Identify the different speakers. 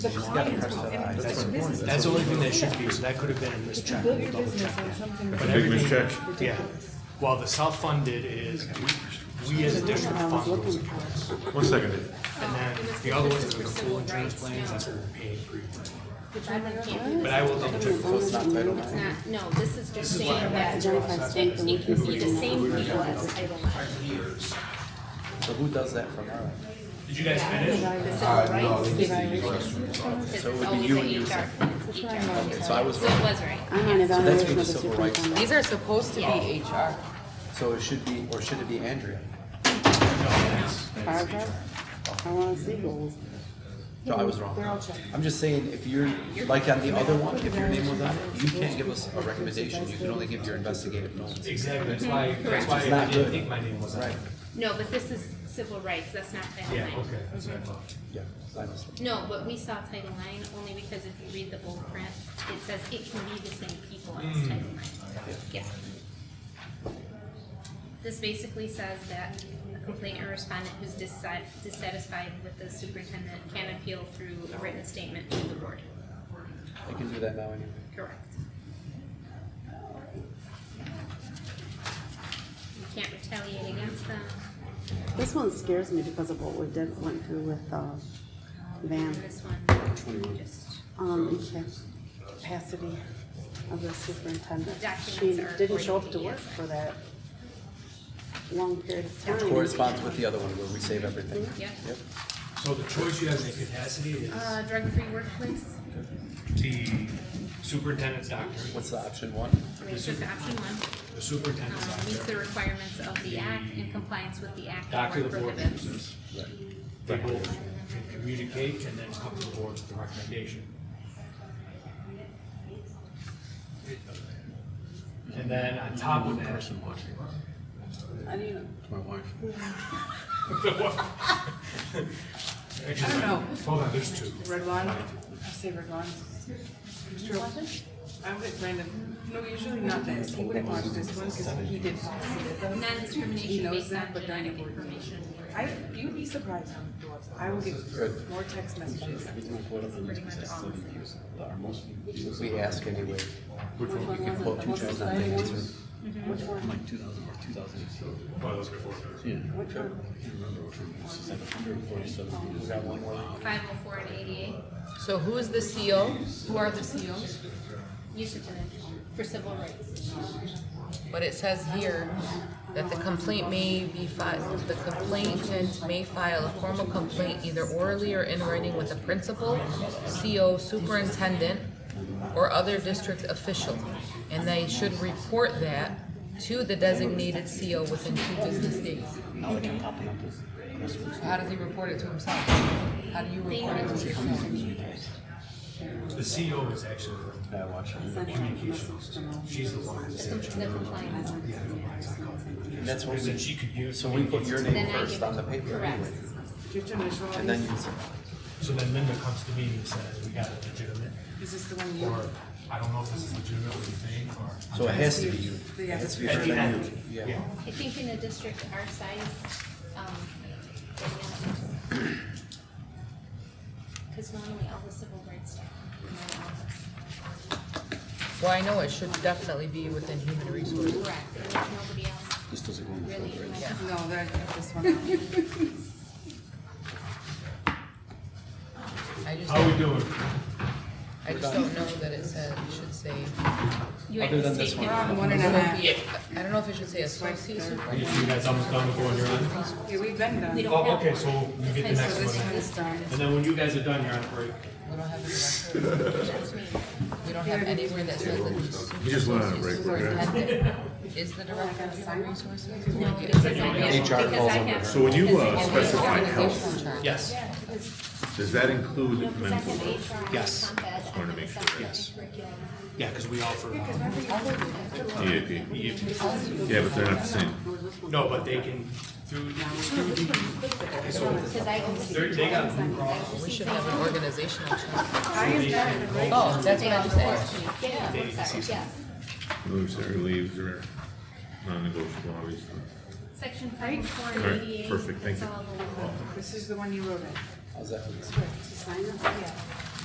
Speaker 1: The clients will
Speaker 2: That's
Speaker 1: influence your business.
Speaker 2: that's the only thing that should be, so that could have been a mischeck.
Speaker 1: Build your
Speaker 2: Double
Speaker 1: business
Speaker 2: check
Speaker 1: on
Speaker 2: that.
Speaker 1: something.
Speaker 2: But
Speaker 1: that's
Speaker 3: big
Speaker 2: everything,
Speaker 3: mischeck.
Speaker 2: yeah, while the self-funded is, we- we as a district fund those accounts.
Speaker 3: One second.
Speaker 2: And then the other ones are the full insurance plans, that's what we're paying for.
Speaker 4: Which one can't be,
Speaker 2: But I will double check. with those.
Speaker 4: it's not, no, this is just saying that, that it can be the same people as item one.
Speaker 5: So who does that from our?
Speaker 2: Did you guys finish?
Speaker 4: The
Speaker 2: Uh,
Speaker 4: civil rights. Because it's always a HR. it's HR.
Speaker 5: So I was
Speaker 4: So it
Speaker 5: wrong.
Speaker 4: was right.
Speaker 6: I'm on
Speaker 5: That's for the
Speaker 6: evaluation of the
Speaker 5: civil rights.
Speaker 6: superintendent.
Speaker 7: These are supposed to be HR.
Speaker 5: So it should be, or should it be Andrea?
Speaker 6: Paragraph? I wanna see those.
Speaker 5: No, I was
Speaker 1: They're all
Speaker 5: wrong.
Speaker 1: checked.
Speaker 5: I'm just saying, if you're, like on the other one, if your name was on it, you can't give us a recommendation, you can only give your investigative notes.
Speaker 2: Exactly, that's why, that's why I
Speaker 5: not
Speaker 2: didn't
Speaker 5: good.
Speaker 2: think my name was on it.
Speaker 4: No, but this is civil rights, that's not Title
Speaker 2: Yeah,
Speaker 4: IX.
Speaker 2: okay, that's what I thought.
Speaker 5: Yeah, I understand.
Speaker 4: No, but we saw Title IX only because if you read the bold print, it says it can be the same people as Title IX. Yeah. This basically says that a complainant or respondent who's dissat- dissatisfied with the superintendent can appeal through a written statement to the board.
Speaker 5: I can do that now anyway.
Speaker 4: Correct. You can't retaliate against them.
Speaker 6: This one scares me because of what we did, went through with, uh,
Speaker 4: And
Speaker 6: Van,
Speaker 4: this one, just,
Speaker 6: um, the capacity of the superintendent.
Speaker 4: Documents
Speaker 6: She
Speaker 4: are
Speaker 6: didn't show up to
Speaker 4: forty
Speaker 6: work
Speaker 4: days.
Speaker 6: for that long period of time.
Speaker 5: Which corresponds with the other one where we save everything.
Speaker 4: yeah.
Speaker 5: Yep.
Speaker 2: So the choice you have in the capacity is
Speaker 4: Uh, drug-free workplace,
Speaker 2: the superintendent's doctor,
Speaker 5: What's the option one?
Speaker 4: we took option one.
Speaker 2: the
Speaker 4: um,
Speaker 2: superintendent's
Speaker 4: meets the
Speaker 2: doctor,
Speaker 4: requirements of the act in compliance with the act
Speaker 2: doctor
Speaker 4: or
Speaker 2: of the board.
Speaker 4: prohibits.
Speaker 2: They both can communicate and then come to the board with the recommendation. And then on top of that,
Speaker 6: I mean,
Speaker 5: My wife.
Speaker 2: actually,
Speaker 7: I don't know.
Speaker 2: hold on, there's two.
Speaker 7: Red one, I say red one. I would random, no, usually not this, he would have watched this one because he did policy with us. He
Speaker 4: Non-discrimination
Speaker 7: knows
Speaker 4: based
Speaker 7: that,
Speaker 4: on
Speaker 7: but not
Speaker 4: genetic
Speaker 7: everyone.
Speaker 4: information.
Speaker 7: I, you'd be surprised how many doors, I will get more text messages.
Speaker 4: Pretty much all the same.
Speaker 5: We ask anyway.
Speaker 6: which one was it?
Speaker 5: Well, two
Speaker 6: Was it
Speaker 5: thousand,
Speaker 6: the
Speaker 5: they
Speaker 6: one?
Speaker 5: answer.
Speaker 6: Which one?
Speaker 5: Like two thousand or two thousand.
Speaker 3: Well, that was before.
Speaker 5: Yeah.
Speaker 6: Which one?
Speaker 5: We got one more.
Speaker 4: Five oh four and eighty-eight,
Speaker 7: So who is the CO? Who are the E COs?
Speaker 4: use of genetic for civil rights.
Speaker 7: But it says here that the complaint may be filed, the complainant may file a formal complaint either orally or in writing with the principal, CO superintendent, or other district official. And they should report that to the designated CO within two business days. How does he report it to himself? How do you report it to yourself?
Speaker 2: The CO is actually,
Speaker 5: Yeah, I watch it.
Speaker 6: Sent a message to them.
Speaker 2: she's the one who's
Speaker 4: The compliance.
Speaker 5: And That's what
Speaker 2: Because then she
Speaker 5: we,
Speaker 2: could use.
Speaker 5: so we put your name
Speaker 4: Then I
Speaker 5: first
Speaker 4: give
Speaker 5: on the paper
Speaker 4: Correct.
Speaker 5: anyway.
Speaker 8: Do you have to initial all
Speaker 5: And then
Speaker 8: these?
Speaker 5: you say,
Speaker 2: So then Linda comes to me and says, we got it legitimate,
Speaker 8: Is this the one you?
Speaker 2: or I don't know if this is legitimate, what do you think, or.
Speaker 5: so it has to be you. It
Speaker 8: Yeah,
Speaker 5: has to be
Speaker 2: At
Speaker 5: her
Speaker 2: the
Speaker 5: than
Speaker 2: end,
Speaker 5: you.
Speaker 2: yeah.
Speaker 5: Yeah.
Speaker 4: I think in a district our size, um, because normally all the civil rights stuff, you know, all this.
Speaker 7: Well, I know it should definitely be within human resources.
Speaker 4: Correct, and there's nobody else. This doesn't go
Speaker 8: No, that, this one. out.
Speaker 7: I just,
Speaker 2: How we doing?
Speaker 7: I just don't know that it said, it should say.
Speaker 4: You
Speaker 5: Other than
Speaker 4: have to
Speaker 5: this
Speaker 4: state
Speaker 5: one.
Speaker 4: that.
Speaker 8: One and a half.
Speaker 7: I don't know if it should say associate
Speaker 2: Are you, you guys almost done before you're on?
Speaker 8: Yeah, we've been
Speaker 4: We
Speaker 8: done.
Speaker 4: don't
Speaker 2: Oh,
Speaker 4: have
Speaker 2: okay,
Speaker 4: one.
Speaker 2: so you get the
Speaker 4: Okay, so
Speaker 2: next
Speaker 8: This
Speaker 2: one.
Speaker 8: one is done.
Speaker 2: And then when you guys are done, you're on break.
Speaker 7: We don't have a director.
Speaker 4: That's me.
Speaker 7: We don't have anywhere that says that the
Speaker 3: We just went on a break. we're good.
Speaker 7: superintendent is the director of human resources.
Speaker 4: No, because I have-
Speaker 5: HR
Speaker 4: because
Speaker 5: falls
Speaker 4: I
Speaker 5: under
Speaker 4: have-
Speaker 3: So when you uh,
Speaker 4: because I have-
Speaker 3: specify health,
Speaker 2: Yes.
Speaker 3: does that include
Speaker 4: No, because I
Speaker 3: mental?
Speaker 4: have HR.
Speaker 2: Yes.
Speaker 4: comp ed,
Speaker 3: Just wanted to make sure.
Speaker 4: academic
Speaker 2: Yes.
Speaker 4: curriculum.
Speaker 2: Yeah, because we offer, um,
Speaker 3: EAP? Yeah, but they're not the same.
Speaker 2: no, but they can, through, through the,
Speaker 4: Because I oversee.
Speaker 2: they're- they got Blue Cross,
Speaker 7: We should have an organizational chart.
Speaker 8: I am done.
Speaker 7: Oh, that's what I just asked.
Speaker 4: Yeah, I'm sorry, yes.
Speaker 3: Moves or leaves or non-negotiable, obviously.
Speaker 4: Section five four
Speaker 3: All right,
Speaker 4: eighty-eight.
Speaker 3: perfect, thank you.
Speaker 8: This is the one you wrote in.
Speaker 5: How's that?
Speaker 6: To sign it? Yeah.